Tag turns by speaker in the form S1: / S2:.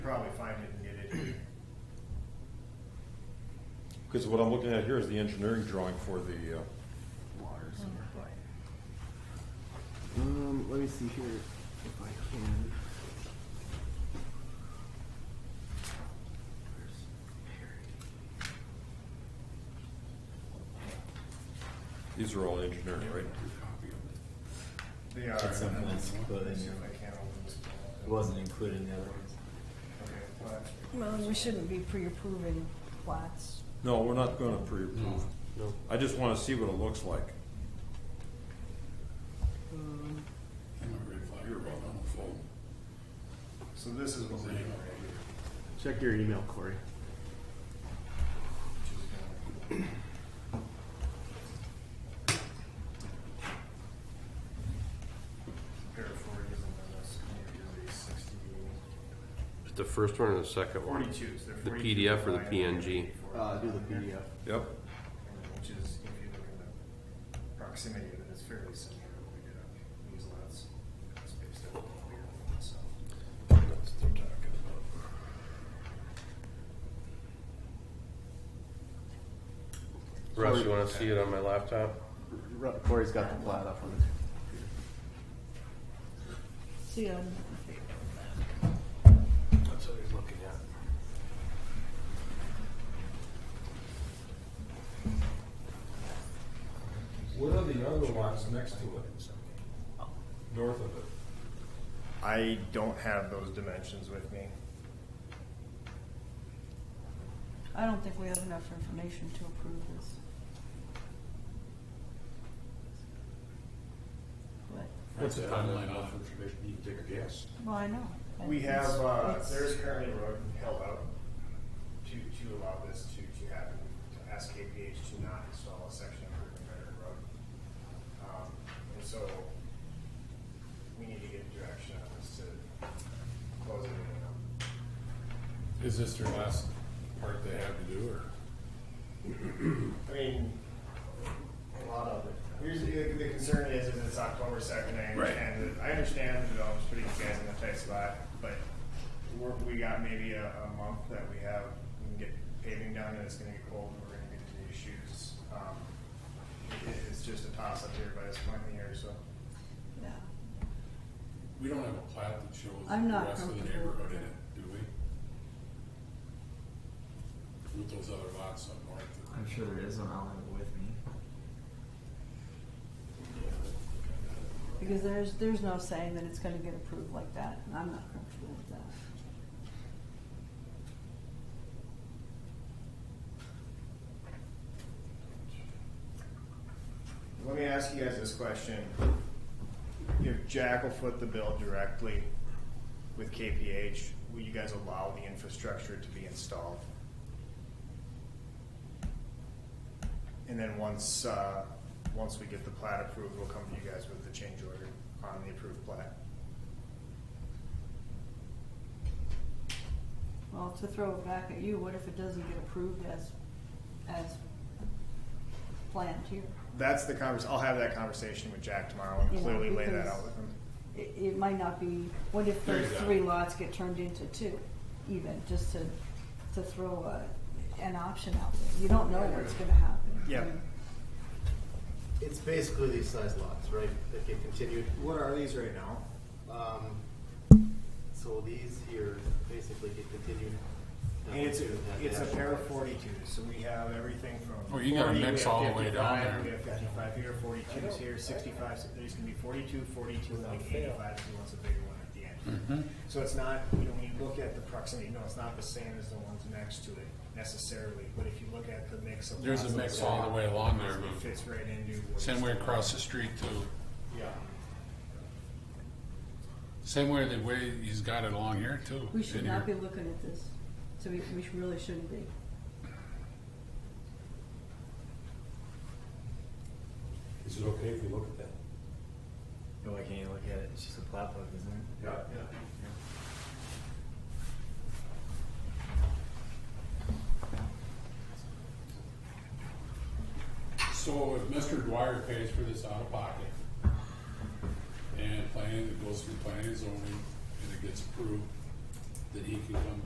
S1: Probably find it and get it. in.
S2: Because what I'm looking at here is the engineering drawing for the, uh,
S3: Um, let me see here if I can.
S2: these are all engineering, right?
S1: They are.
S4: At some point, it's
S1: Let me
S4: included.
S1: see if I can open this.
S4: It wasn't included in the other ones.
S1: Okay, well, that's-
S5: Well, we shouldn't be pre-approving plots.
S2: No, we're not gonna pre-approve.
S3: No.
S2: I just wanna see what it looks like.
S1: So this is what we're doing right here.
S3: Check your email, Corey.
S1: Pair of forties and then this, maybe sixty.
S6: The first one and the second one?
S1: Forty-twos, they're
S6: The
S1: 42
S6: PDF or the
S1: line
S6: PNG?
S1: and 44
S3: Uh, do the
S1: on there.
S3: PDF.
S2: Yep,
S1: Which is, if you look at the proximity of it, it's fairly similar to what we did on these lots. It's based on what we were, so. That's what I'm talking about.
S6: Russ, you wanna see it on my laptop?
S3: Ru- Corey's got the plat up on his.
S5: See, um,
S6: That's what he's looking at.
S2: What are the other lots next to it? North of it?
S1: I don't have those dimensions with me.
S5: I don't think we have enough information to approve this. But,
S7: What's the timeline on information? You can take a guess.
S5: well, I know. I
S1: We
S5: think
S1: have,
S5: it's-
S1: uh,
S5: it's-
S1: there's currently a road held out to, to allow this to, to happen, to ask KPH to not install a section improvement better road. Um, and so we need to get direction on this to close it in.
S7: Is this their last part they have to do, or?
S1: I mean, a lot of it. Here's, the the concern is, is it's October second, I understand, that- I understand the developer's putting you guys in a tight spot, but we're, we got maybe a, a month that we have, we can get paving done, and it's gonna get cold, and we're gonna get into issues. Um, it, it's just a toss up here by this point in the year, so.
S5: yeah.
S7: We don't have a plat that shows the
S5: I'm not
S7: rest of the
S5: comfortable with
S7: neighborhood in
S5: that.
S7: it, do we? With those other lots up north. that-
S4: I'm sure there is one. I'll have it with me.
S5: Because there's, there's no saying that it's gonna get approved like that, and I'm not comfortable with that.
S1: Let me ask you guys this question. If Jack will foot the bill directly with KPH, will you guys allow the infrastructure to be installed? And then once, uh, once we get the plat approved, we'll come to you guys with the change order on the approved plat.
S5: Well, to throw it back at you, what if it doesn't get approved as, as planned here?
S1: That's the convers, I'll have that conversation with Jack tomorrow and
S5: Yeah,
S1: clearly lay that
S5: because-
S1: out with him.
S5: It, it might not be, what if those
S7: There you go.
S5: three lots get turned into two, even, just to, to throw a, an option out there? You don't know what's gonna happen.
S1: Yeah.
S8: It's basically these size lots, right, that get continued.
S1: What are these right now?
S8: Um, so these here basically get continued.
S1: And it's,
S8: Now, that
S1: it's a
S8: dash
S1: pair of
S8: line.
S1: forty-twos, so we have everything from.
S7: Oh, you got
S1: 40,
S7: a
S1: we
S7: mix
S1: have
S7: all the way down
S1: 55,
S7: there.
S1: We have fifty-five here, forty-twos here, sixty-five, so there's gonna be forty-two, forty-two, and like eighty-five, if he wants a bigger one at the
S7: Mm-hmm.
S1: end. So it's not, you know, when you look at the proximity, no, it's not the same as the ones next to it necessarily, but if you look at the mix of.
S7: There's a
S1: lots that
S7: mix
S1: are
S7: all the way along there,
S1: It
S7: but
S1: fits right into. what-
S7: same way across the street too.
S1: Yeah.
S7: Same way the way he's got it along here too.
S5: We should
S7: in
S5: not be
S7: here.
S5: looking at this, so we, we should- really shouldn't be.
S9: Is it okay if we look at that?
S4: But why can't you look at it? It's just a plat book, isn't it?
S9: Yeah.
S7: So if Mr. Dwyer pays for this out of pocket, and planning, it goes through planning and zoning, and it gets approved, that he can come